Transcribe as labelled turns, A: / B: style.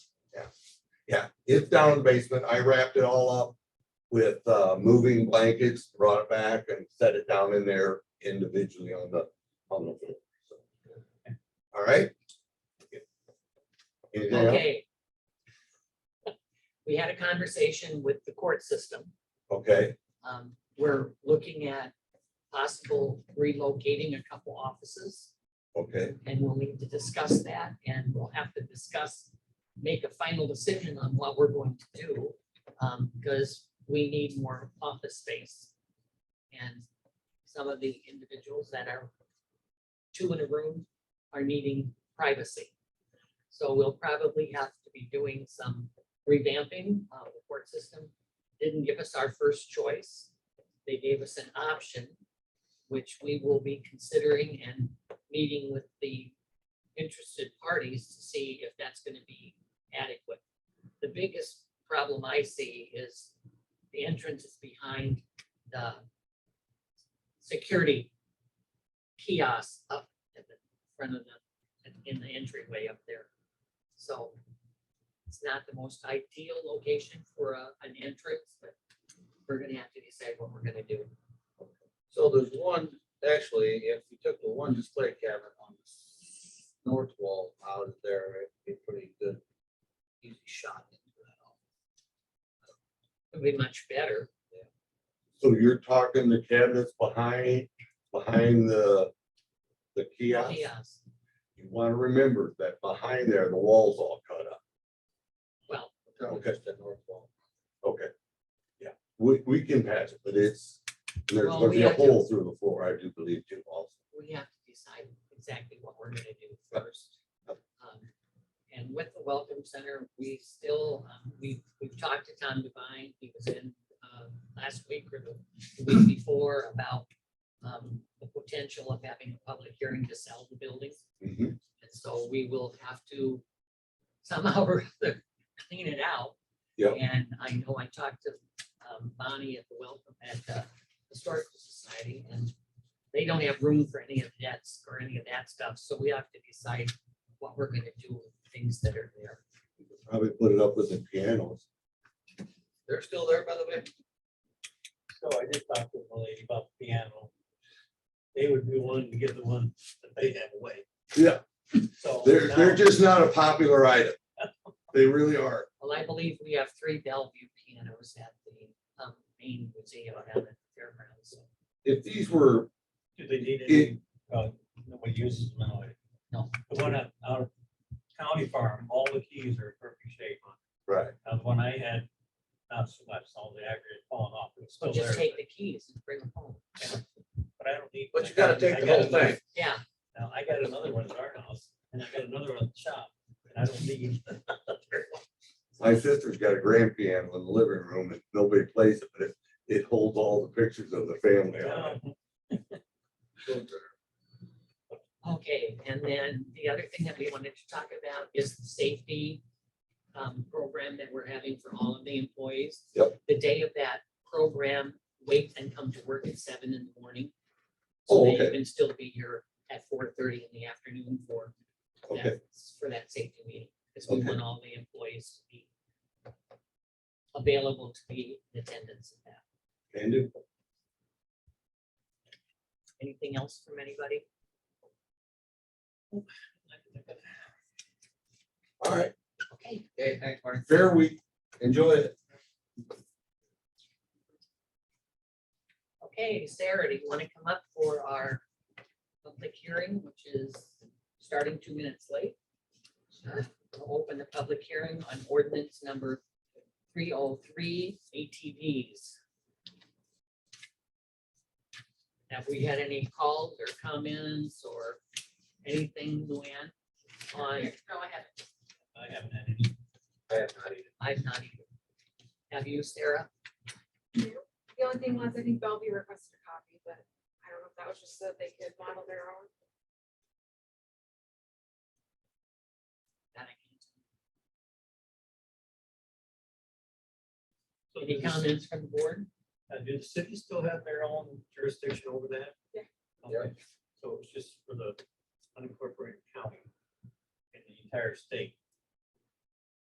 A: Yeah, it's down in the basement. I wrapped it all up with uh moving blankets, brought it back and set it down in there individually on the, on the floor. so. All right. Anything else?
B: Okay. We had a conversation with the court system.
A: Okay,
B: Um, we're looking at possible relocating a couple offices
A: okay,
B: and we'll need to discuss that and we'll have to discuss, make a final decision on what we're going to do. Um, because we need more office space. And some of the individuals that are two in a room are needing privacy. So we'll probably have to be doing some revamping of the court system. Didn't give us our first choice. They gave us an option, which we will be considering and meeting with the interested parties to see if that's gonna be adequate. The biggest problem I see is the entrance is behind the security kiosk up at the front of the, in the entryway up there. So it's not the most ideal location for a, an entrance, but we're gonna have to decide what we're gonna do.
C: So there's one, actually, if you took the one display cabinet on the s- north wall out of there, it'd be a pretty good. Easy shot into that. office.
B: It'd be much better.
A: so you're talking the cabinets behind, behind the, the kiosk?
B: Kiosk.
A: You wanna remember that behind there, the wall's all cut up,
B: Well,
C: That
A: Oh,
C: was
A: Okay.
C: Just the north wall.
A: okay? Yeah, we, we can patch it, but it's, there's
B: Well,
A: gonna
B: we
A: be a
B: have to-
A: hole through the floor, I do believe too, also.
B: we have to decide exactly what we're gonna do first. Um, And with the Welcome Center, we still, um, we, we've talked to Tom Devine, he was in uh, last week or the week before about um, the potential of having a public hearing to sell the building.
C: Mm-hmm.
A: Mhm.
B: And so we will have to somehow or other clean it out.
A: Yep.
B: And I know I talked to um, Bonnie at the welcome, at the Historical Society, and they don't have room for any of that, or any of that stuff, so we have to decide what we're gonna do with things that are there.
A: Probably put it up with the pianos.
C: They're still there, by the way?
D: So I just talked to the lady about the piano. They would be willing to give the one that they have away,
A: Yeah,
D: so.
A: they're,
D: now-
A: they're just not a popular item. They really are.
B: Well, I believe we have three Bellevue pianos at the um, main museum down at the fairgrounds.
A: If these were,
D: Do they need
A: It-
D: any, uh, nobody uses them now?
B: No.
D: The one at, out of county farm, all the keys are perfect shape on.
A: right,
D: Now, the one I had, not so much, all the aggregate falling off, it's still Oh, there.
B: Just take the keys and bring them home.
D: But I don't need.
C: But you gotta take the
D: I got
C: whole
D: another-
C: thing.
B: Yeah,
D: Now, I got another one at our house, and I got another one at the shop, and I don't need.
A: my sister's got a grand piano in the living room and nobody plays it, but it, it holds all the pictures of the family on
D: No,
A: it.
B: okay, and then the other thing that we wanted to talk about is the safety um, program that we're having for all of the employees.
A: Yep.
B: The day of that program, wake and come to work at seven in the morning. So
A: Oh,
B: that you
A: okay.
B: can still be here at four thirty in the afternoon for
A: Okay.
B: that, for that safety meeting. Because we
A: Okay.
B: want all the employees to be available to be in attendance at that.
A: And if
B: Anything else from anybody? Oh,
A: All right,
B: Okay,
C: Okay, thanks, Marty.
A: fair week. Enjoy it.
B: okay, Sarah, do you want to come up for our public hearing, which is starting two minutes late? Sure. We'll Open the public hearing on ordinance number three oh three ATVs. Have we had any calls or comments or anything, Luann? On,
E: Go ahead.
D: I haven't had any.
C: I have not either.
B: I've not even. Have you, Sarah?
E: The only thing was, I think Bellevue requested a copy, but I don't know if that was just so that they could model their own.
B: That I can't-
D: So
B: Any
D: does-
B: comments from the board?
D: Uh, do the city still have their own jurisdiction over that?
E: Yeah.
D: Okay, so it's just for the unincorporated county and the entire state.